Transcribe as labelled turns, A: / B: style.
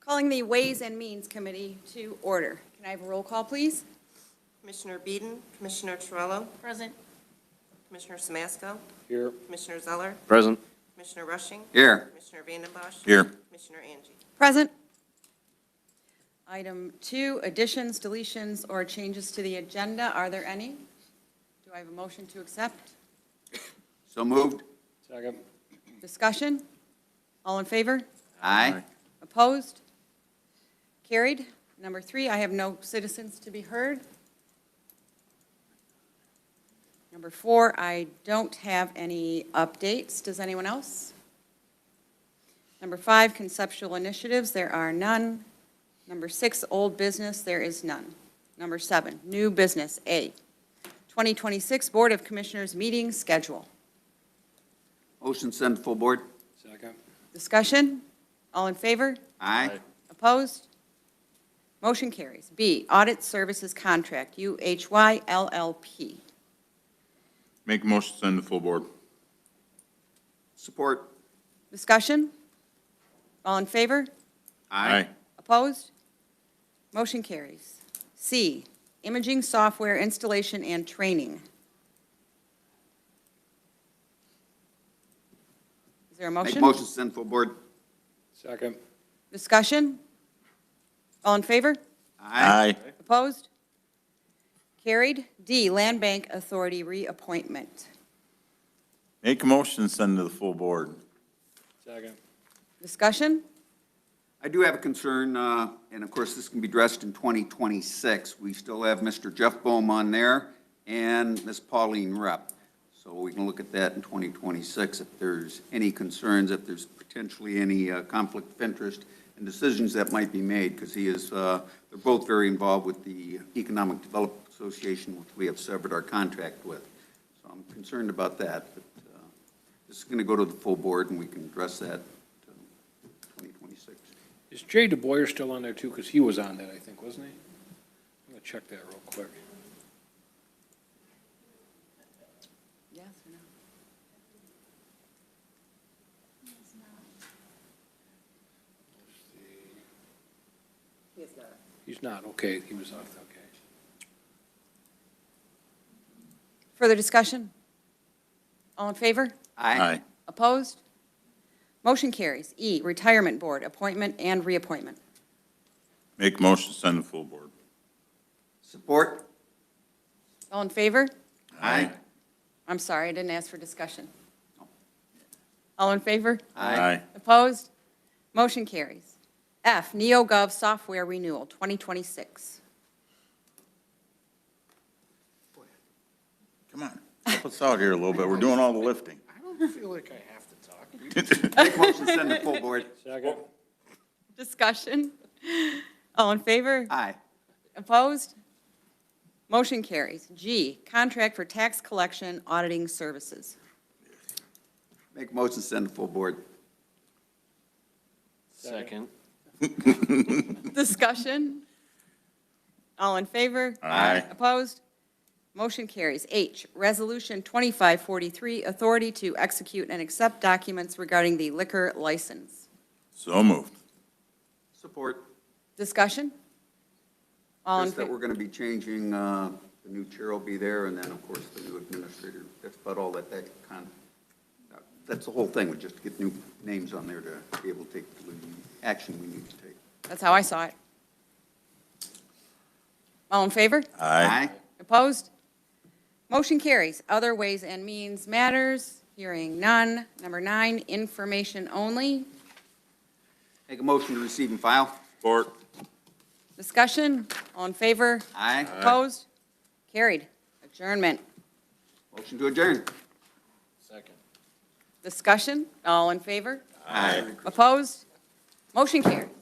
A: calling the Ways and Means Committee to order. Can I have a roll call, please?
B: Commissioner Beeden, Commissioner Torello,
C: Present.
B: Commissioner Samasco,
D: Here.
B: Commissioner Zeller,
D: Present.
B: Commissioner Rushing.
D: Here.
B: Commissioner Vandenbosch.
D: Here.
B: Commissioner Angie.
A: Present. Item two, additions, deletions, or changes to the agenda. Are there any? Do I have a motion to accept?
E: So moved.
D: Second.
A: Discussion? All in favor?
E: Aye.
A: Opposed? Carried. Number three, I have no citizens to be heard. Number four, I don't have any updates. Does anyone else? Number five, conceptual initiatives, there are none. Number six, old business, there is none. Number seven, new business, A. 2026 Board of Commissioners meeting schedule.
E: Motion send to full board.
D: Second.
A: Discussion? All in favor?
E: Aye.
A: Opposed? Motion carries. B, Audit Services Contract, UHY LLP.
F: Make a motion to send to full board.
E: Support.
A: Discussion? All in favor? Opposed? Motion carries. C, Imaging Software Installation and Training. Is there a
E: Make
A: motion?
E: motion send full board.
D: Second.
A: Discussion? All in favor? Opposed? Carried. D, Land Bank Authority Reappointment.
F: Make a motion to send to the full board.
D: Second.
A: Discussion?
E: I do have a concern, uh, and of course, this can be addressed in 2026. We still have Mr. Jeff Bohm on there and Ms. Pauline Rep. So we can look at that in 2026 if there's any concerns, if there's potentially any uh, conflict of interest and decisions that might be made, because he is, uh, they're both very involved with the Economic Development Association, which we have severed our contract with. So I'm concerned about that, but uh, this is going to go to the full board, and we can address that in 2026.
D: Is Jay DeBoyer still on there too? Because he was on that, I think, wasn't he? I'm gonna check that real quick.
A: Yes or no?
D: He's not, okay, he was off, okay.
A: Further discussion? All in favor? Opposed? Motion carries. E, Retirement Board, appointment and reappointment.
F: Make a motion to send to full board.
E: Support?
A: All in favor? I'm sorry, I didn't ask for discussion. All in favor?
F: Aye.
A: Opposed? Motion carries. F, NeoGov Software Renewal, 2026.
F: Come on, help us out here a little bit. We're doing all the lifting.
D: I don't feel like I have to talk.
E: Make motion to send to full board.
D: Second.
A: Discussion? All in favor?
E: Aye.
A: Opposed? Motion carries. G, Contract for Tax Collection Auditing Services.
E: Make motion to send to full board.
D: Second.
A: Discussion? All in favor?
F: Aye.
A: Opposed? Motion carries. H, Resolution 2543, authority to execute and accept documents regarding the liquor license.
F: So moved.
E: Support.
A: Discussion? All in,
E: Just that
A: fa-
E: we're going to be changing, uh, the new chair will be there, and then, of course, the new administrator. That's about all that, that con, that's the whole thing, we just get new names on there to be able to take the action we need to take.
A: that's how I saw it. All in favor?
E: Aye.
A: Opposed? Motion carries. Other ways and means matters, hearing none. Number nine, information only.
E: Make a motion to receive and file.
F: Support.
A: Discussion, all in favor?
E: Aye.
A: Opposed? Carried. Adjournment.
E: Motion to adjourn.
D: Second.
A: Discussion, all in favor?
E: Aye.
A: Opposed? Motion carries.